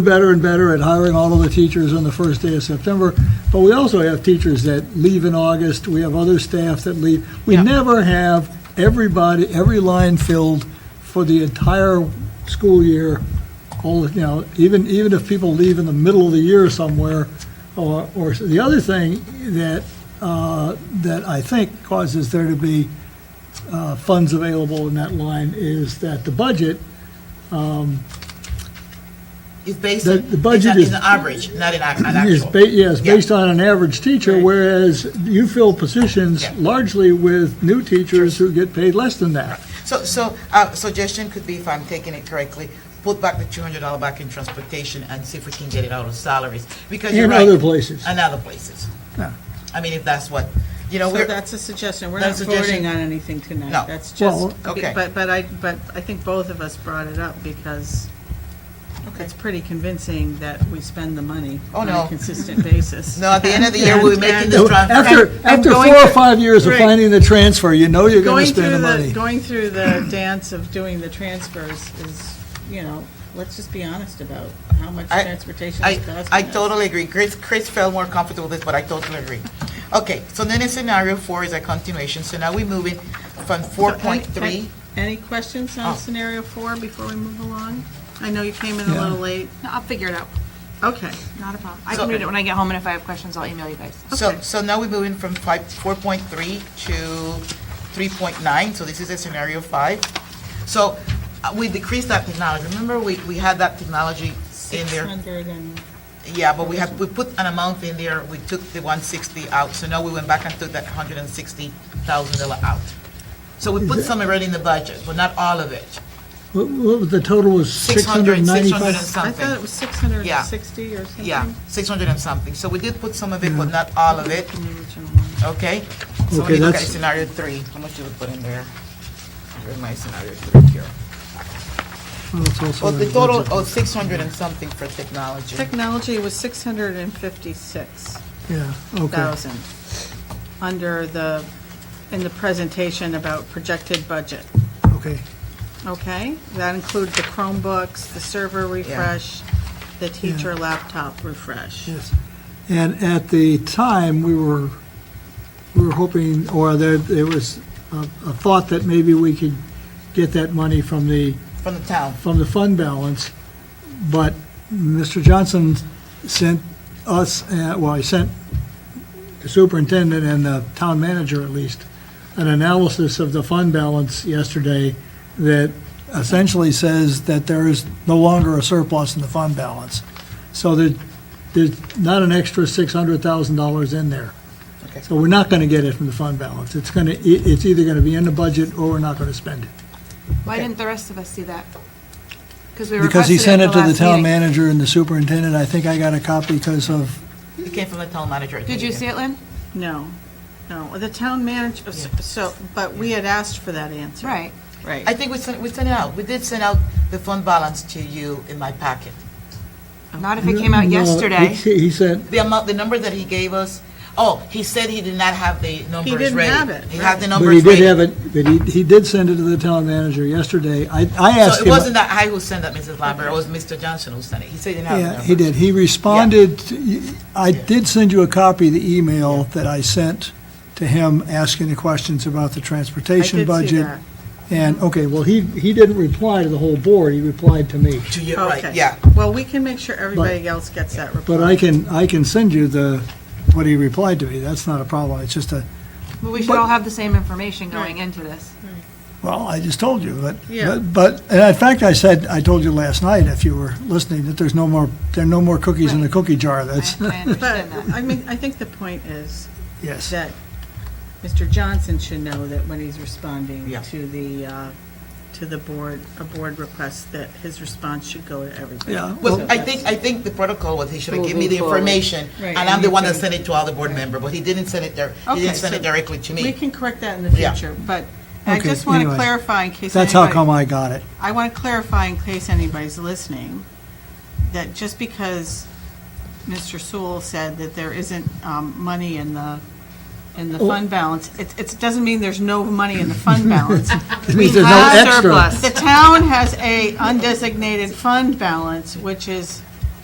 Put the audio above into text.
better and better at hiring all of the teachers on the first day of September, but we also have teachers that leave in August, we have other staff that leave. We Yeah. never have everybody, every line filled for the entire school year, all, you know, even, even if people leave in the middle of the year somewhere, or, or, the other thing that, uh, that I think causes there to be uh, funds available in that line is that the budget It's based, The- in- the budget it's is- an average, not an ac- an It's actual. ba, yes, Yeah. based on an average teacher, Right. whereas you fill positions Yeah. largely with new teachers who get paid less than that. So, so, uh, suggestion could be, if I'm taking it correctly, put back the two hundred dollar back in transportation and see if we can get it out of salaries, because you're In right. other places. And other places. Yeah. I mean, if that's what, you know, So we're, that's a suggestion, we're not That's a suggestion. voting on anything tonight. No. That's Well- just, Okay. but, but I, but I think both of us brought it up because Okay. it's pretty convincing that we spend the money Oh, on no. a consistent basis. No, at the end of the year, we're making this And- trans- After, and after going four or through- five years of right. finding the transfer, you know you're gonna Going spend through the the, money. going through the dance of doing the transfers is, you know, let's just be honest about how much I- transportation is I, costing I us. totally agree. Chris, Chris felt more comfortable with this, but I totally agree. Okay, so then in scenario four is a continuation, so now we're moving from four So, any- point three. Any questions Oh. on scenario four before we move along? I know you came in a Yeah. little late. No, I'll figure it out. Okay. Not a problem. I So- can read it when I get home, and if I have questions, I'll email you guys. So, Okay. so now we're moving from five, four point three to three point nine, so this is a scenario five. So uh, we decreased that technology, remember, we, we had that technology in there? 600 and, Yeah, but we have, we put an amount in there, we took the one sixty out, so now we went back and took that hundred and sixty thousand dollar out. So we put some already in the budget, but not all of it, What, what was the total was six six hundred hundred, and six hundred and ninety-five? I something. thought it was 660 or something. Yeah, six hundred and something, so we did put some of it, but not all of it. in the original one. Okay, so when Okay, you look at that's- scenario three, how much you would put in there? Here's my scenario three here. Oh, Well, the total, oh, six hundred and something for technology. Technology was 656,000, Yeah, okay. under the, in the presentation about projected budget, Okay. okay? That includes the Chromebooks, the server refresh, the teacher laptop refresh. Yes. And at the time, we were, we were hoping, or there, there was a, a thought that maybe we could get that money from the From the town. from the fund balance, but Mr. Johnson sent us, uh, well, he sent the superintendent and the town manager at least, an analysis of the fund balance yesterday that essentially says that there is no longer a surplus in the fund balance. So there, there's not an extra $600,000 in there. Okay. So we're not going to get it from the fund balance. It's going to, it's either going to be in the budget or we're not going to spend it. Why didn't the rest of us see that? Because we Because he requested sent at it to the last town meeting. manager and the superintendent, I think I got a copy because of, It came from the town manager. I Did think. you see it, Lynn? No, no, the town manager, so, but we had asked for that answer. Right. Right. I think we sent, we sent it out. We did send out the fund balance to you in my packet. Not if it came out No, yesterday. He he said, The amount, the number that he gave us, oh, he said he did not have the numbers ready. didn't have it, He had the right. but he numbers did ready. have it, but he, he did send it to the town manager yesterday. I, I asked So him. it wasn't that I who sent that, Mrs. Lambert, it was Mr. Johnson who sent it. He said he didn't have the Yeah, numbers. he did. He responded, to- I did send you a copy of the email that I sent to him asking the questions about the transportation I did see budget. that. And, okay, well, he, he didn't reply to the whole board, he replied to me. To you, Okay. right, yeah. Well, we can make sure everybody else gets that report. But I can, I can send you the, what he replied to me. That's not a problem. It's just a, But we should But- all have the same information going into this. Well, I just told you, but, Yeah. but, but, and in fact, I said, I told you last night, if you were listening, that there's no more, there are no more cookies in the Right. cookie jar, I that's, I But, understand that. I mean, I think the point is yes. that Mr. Johnson should know that when he's responding Yeah. to the, uh, to the board, a board request, that his response should go to everybody. Yeah, Well, So I that's- think, I think the protocol was he should have given me the Moving forward. information, Right, and I'm and the you one that can- sent it to all the board member, but he didn't send it there, he Okay, didn't send so it directly to We me. can correct that in the Yeah. future, but I Okay, just want to anyway. clarify in case That's how anybody, come I got it. I want to clarify in case anybody's listening, that just because Mr. Sewell said that there isn't um, money in the, in the fund balance, it, it doesn't mean there's no money in the fund balance. It means there's no have extra. The town has a undesignated fund balance, which is